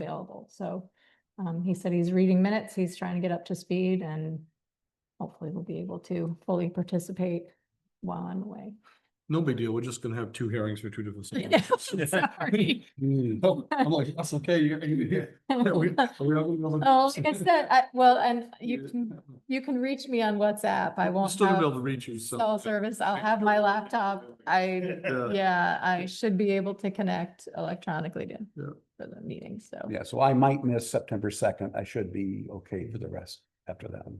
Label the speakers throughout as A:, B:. A: available. So um, he said he's reading minutes, he's trying to get up to speed and hopefully we'll be able to fully participate while I'm away.
B: No big deal. We're just gonna have two hearings for two different.
A: Yeah, sorry.
B: Mm. Oh, I'm like, that's okay. You're, you're here. Are we-
A: Oh,
B: are we all gonna be able
A: like I
B: to-
A: said, I, well, and you
B: Yeah.
A: can, you can reach me on WhatsApp. I
B: I'm
A: won't
B: Still gonna be able to
A: have
B: reach you, so.
A: cell service. I'll have my laptop. I,
B: Yeah.
A: yeah, I should be able to connect electronically to,
B: Yeah.
A: for the meeting, so.
C: Yeah, so I might miss September second. I should be okay for the rest after that. one.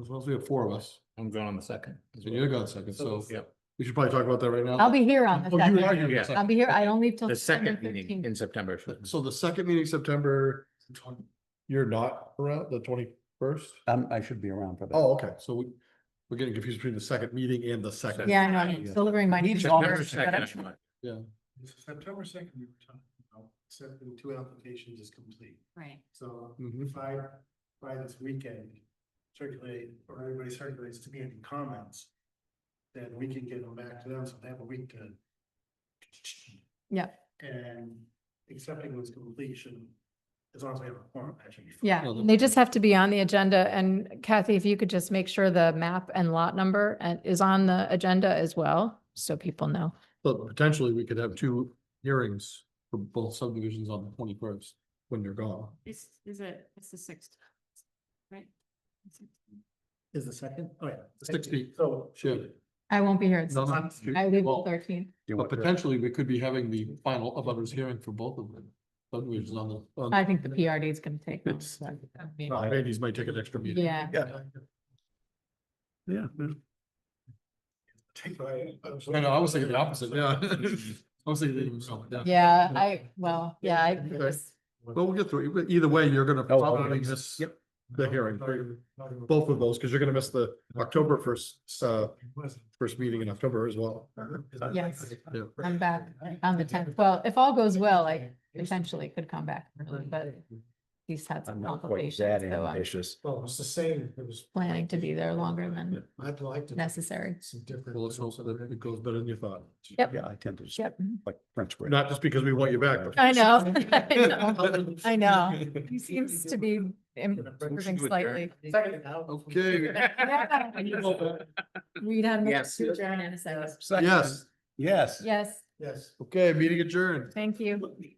B: As long as we have four of us.
D: I'm going on the second. as
B: So
D: well.
B: you're gone second, so-
D: Yep.
B: We should probably talk about that right now.
A: I'll be here on the
B: Oh, you are
A: second.
B: here on the
D: Yeah.
B: second.
A: I'll be here. I don't leave till.
D: The
A: September
D: second meeting
A: 13th.
D: in September.
B: So the second meeting, September, you're not around, the twenty-first?
C: Um, I should be around for that.
B: Oh, okay, so we, we're getting confused between the second meeting and the second.
A: Yeah, I know. I'm
B: Yeah.
A: delivering my.
C: He's
A: newsletter,
D: September
A: but I'm
D: second. I'm like,
E: September second, we were talking about accepting two applications is complete.
F: Right.
E: So
B: Mhm.
E: if I, by this weekend, circulate, or everybody circulates to me any comments, then we can get them back to them, so they have a week to.
A: Yeah.
E: And accepting was completion, as long as we have a form, actually.
A: Yeah,
B: Well,
A: and they just have to be on the agenda. And Kathy, if you could just make sure the map and lot number and is on the agenda as well, so people know.
B: But potentially, we could have two hearings for both subdivisions on the twenty-first when you're gone.
F: Is, is it, it's the sixth, right?
E: Is the second, oh yeah.
B: The 16th.
E: So.
B: Sure.
A: I won't be here. at
B: No,
A: six.
B: no,
A: I leave
B: well,
A: on thirteen.
C: You
B: But
C: want to-
B: potentially, we could be having the final of others hearing for both of them. Subdivisions on the. on-
A: I think the PRD is gonna take. long, so I mean,
B: Uh, Andy's might take an extra meeting.
A: Yeah.
B: Yeah.
C: Yeah.
E: Take my.
B: I know, I was thinking the opposite, yeah. I was thinking. the-
A: Yeah, I, well, yeah, I
B: Okay.
A: just-
B: Well, we'll get through it, but either way, you're gonna
C: Oh,
B: probably
C: okay.
B: miss the hearing, both of those, because you're gonna miss the October first, uh, first meeting in October as well.
A: Yes.
B: Yeah.
A: I'm back on the tenth. Well, if all goes well, I potentially could come back, early, but he's had
C: I'm
A: some
C: not quite
A: complications,
C: that
A: so uh, I'm
C: ambitious.
E: Well, it's the same, it was.
A: planning to be there longer than
E: I'd like to.
A: necessary.
E: Some different.
B: Well, it's also that it goes better than you thought.
A: Yep.
C: Yeah, I tend to,
A: Yep.
C: like French. bread.
B: Not just because we want you back. but-
A: I know. Oh, I know. I know. He seems to be improving
D: to adjourn.
A: slightly.
E: Second now.
B: Okay,
A: We'd have.
D: Yes.
A: Adjourn in a second.
C: Second.
B: yes,
C: Yes.
A: Yes,
E: Yes.
B: okay, meeting adjourned.
A: thank you.